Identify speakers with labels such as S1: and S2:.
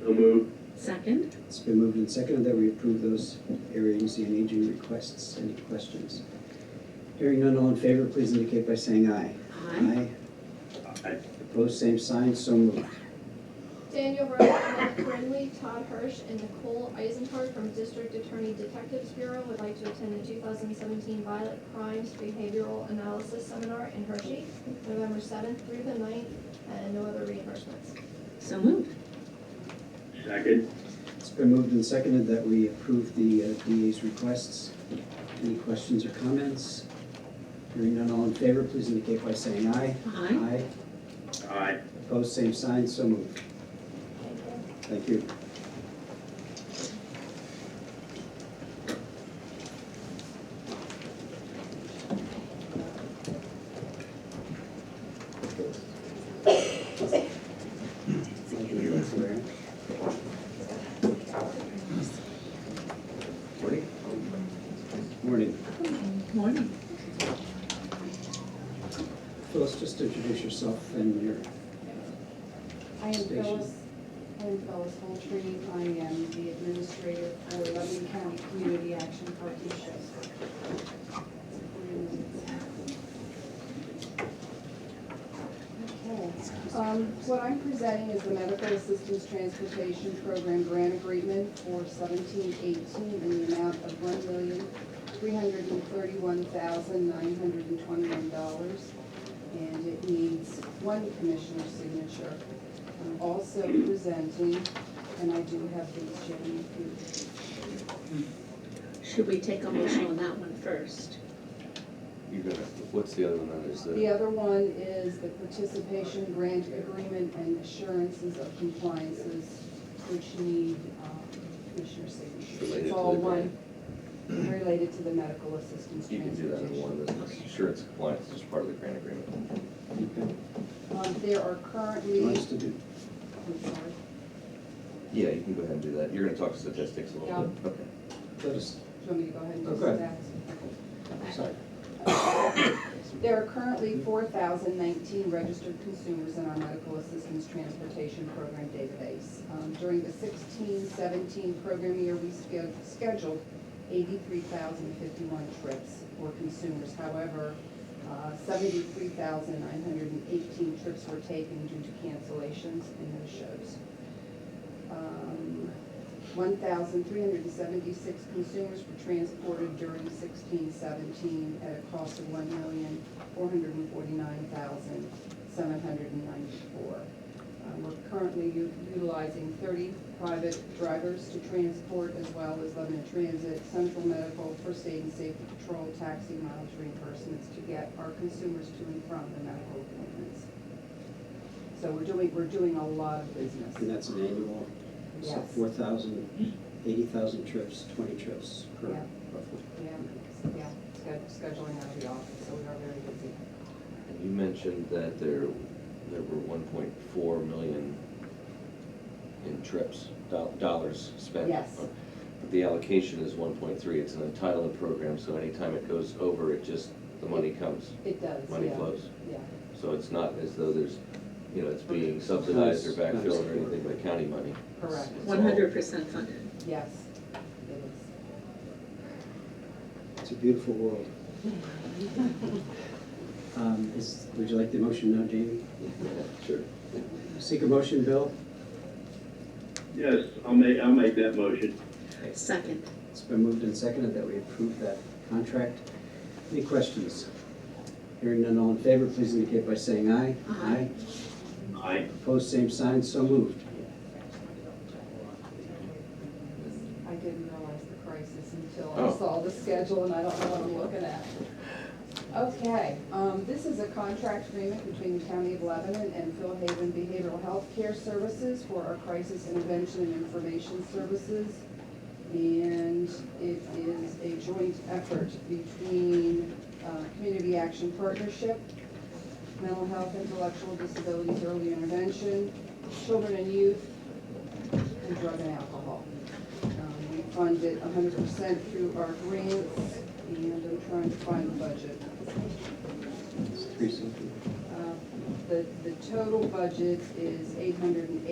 S1: So moved.
S2: Second?
S3: It's been moved and seconded that we approve those area agency and aging requests. Any questions? Hearing none, all in favor, please indicate by saying aye.
S2: Aye.
S3: Aye. Opposed, same sign, so moved.
S4: Daniel Rose, Matt Brinley, Todd Hirsch, and Nicole Eisenhardt from District Attorney Detectives Bureau would like to attend the two thousand seventeen Violent Crimes Behavioral Analysis Seminar in Hershey, November seventh through the 9th, and no other reimbursements.
S2: So moved.
S1: Second.
S3: It's been moved and seconded that we approve the uh, DA's requests. Any questions or comments? Hearing none, all in favor, please indicate by saying aye.
S2: Aye.
S1: Aye.
S3: Opposed, same sign, so moved. Thank
S4: Thank you.
S3: you. Thank you, Ms. Ware. Morning.
S2: Morning.
S3: Phyllis, just introduce yourself and your,
S5: I am
S3: Station.
S5: Phyllis, I am Phyllis Holtree, I am the administrator for Lebanon County Community Action Partnership. Okay, um, what I'm presenting is the Medical Assistance Transportation Program Grant Agreement for seventeen eighteen in the amount of one million, three hundred and thirty-one thousand, nine hundred and twenty-one dollars. And it needs one commissioner's signature. I'm also presenting, and I do have these, Jenny, if you
S2: Should we take a motion on that one first?
S6: You're gonna, what's the other one that is
S5: The
S6: the,
S5: other one is the participation grant agreement and assurances of compliances, which need um, commissioner signatures.
S6: Related
S5: It's
S6: to
S5: all
S6: the
S5: one Related to the medical assistance.
S6: you can do that in one, that's insurance compliance is part of the grant agreement.
S3: okay,
S5: Um, There are currently,
S3: wants to do.
S5: I'm sorry,
S6: Yeah, you can go ahead and do that, you're gonna talk statistics a little bit, okay.
S3: Let us,
S5: do you want me to go ahead and do
S3: Okay.
S5: that?
S3: sorry.
S5: There are currently four thousand nineteen registered consumers in our medical assistance transportation program database. Um, During the 16-17 program year, we sched- scheduled eighty-three thousand fifty-one trips for consumers. However, uh, seventy-three thousand nine hundred and eighteen trips were taken due to cancellations and no-shows. Um, 1,376 consumers were transported during 16-17 at a cost of $1,449,794. Uh, We're currently u- utilizing 30 private drivers to transport as well as Lebanon Transit, Central Medical, First Aid and Safety Patrol, taxi mileage reimbursements to get our consumers to and from the medical appointments. So we're doing, we're doing a lot of business.
S3: And that's an annual, so
S5: Yes.
S3: four thousand, eighty thousand trips, twenty trips per
S5: Yeah.
S3: roughly.
S5: Yeah, yeah, sched- scheduling out of the office, so we are very busy.
S6: And you mentioned that there, there were one point four million in trips, do- dollars spent.
S5: Yes.
S6: But the allocation is one point three, it's an entitlement program, so anytime it goes over, it just, the money comes,
S5: It does, yeah.
S6: money flows.
S5: Yeah,
S6: So it's not as though there's, you know, it's being subsidized or backfilled or anything by county money.
S5: correct,
S6: It's all-
S2: One hundred percent funded.
S5: yes, it is.
S3: It's a beautiful world. Um, is, would you like the motion now, Jamie?
S6: Yeah, Sure.
S3: Seek a motion, Bill?
S1: Yes, I'll make, I'll make that motion.
S2: Second.
S3: It's been moved and seconded that we approve that contract. Any questions? Hearing none, all in favor, please indicate by saying aye.
S2: Aye.
S1: Aye.
S3: Opposed, same sign, so moved.
S5: I didn't realize the crisis until
S6: Oh.
S5: I saw the schedule and I don't know what I'm looking at. Okay, um, this is a contract agreement between the County of Lebanon and Phil Haven Behavioral Health Care Services for our crisis intervention and information services. And it is a joint effort between, uh, Community Action Partnership, Mental Health, Intellectual Disabilities, Early Intervention, Children and Youth, and Drug and Alcohol. Um, We fund it hundred percent through our grants, and I'm trying to find the budget.
S3: It's three something.
S5: Uh, The, the total budget is eight hundred and